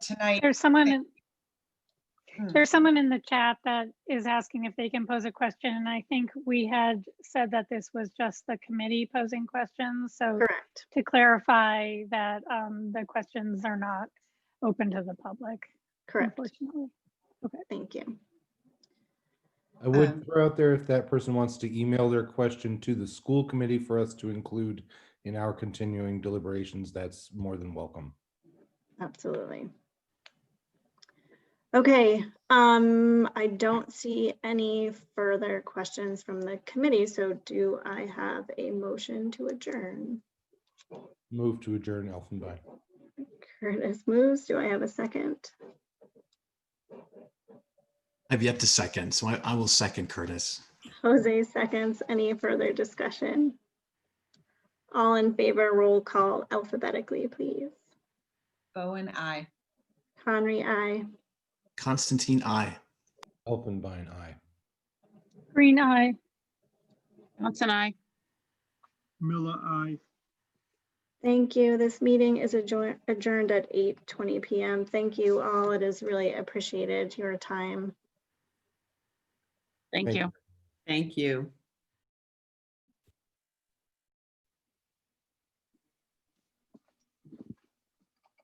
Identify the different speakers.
Speaker 1: tonight.
Speaker 2: There's someone, in-
Speaker 1: Hmm.
Speaker 2: there's someone in the chat that is asking if they can pose a question, and I think we had said that this was just the committee posing questions, so
Speaker 3: Correct.
Speaker 2: to clarify that um, the questions are not open to the public,
Speaker 3: Correct.
Speaker 2: unfortunately.
Speaker 3: Thank you.
Speaker 4: I would
Speaker 1: Um,
Speaker 4: throw out there if that person wants to email their question to the school committee for us to include in our continuing deliberations, that's more than welcome.
Speaker 3: Absolutely. Okay, um, I don't see any further questions from the committee, so do I have a motion to adjourn?
Speaker 4: Move to adjourn Elfenbein.
Speaker 3: Curtis moves. Do I have a second?
Speaker 5: I've yet to second, so I, I will second Curtis.
Speaker 3: Jose seconds. Any further discussion? All in favor, roll call alphabetically, please.
Speaker 1: Bowen, I.
Speaker 3: Conry, I.
Speaker 5: Constantine, I.
Speaker 4: Elfenbein, aye.
Speaker 2: Green eye.
Speaker 6: Johnson, I.
Speaker 7: Miller, I.
Speaker 3: Thank you. This meeting is adjour- adjourned at 8:20 PM. Thank you all. It is really appreciated your time.
Speaker 6: Thank
Speaker 4: Thank
Speaker 6: you.
Speaker 4: you.
Speaker 8: Thank you.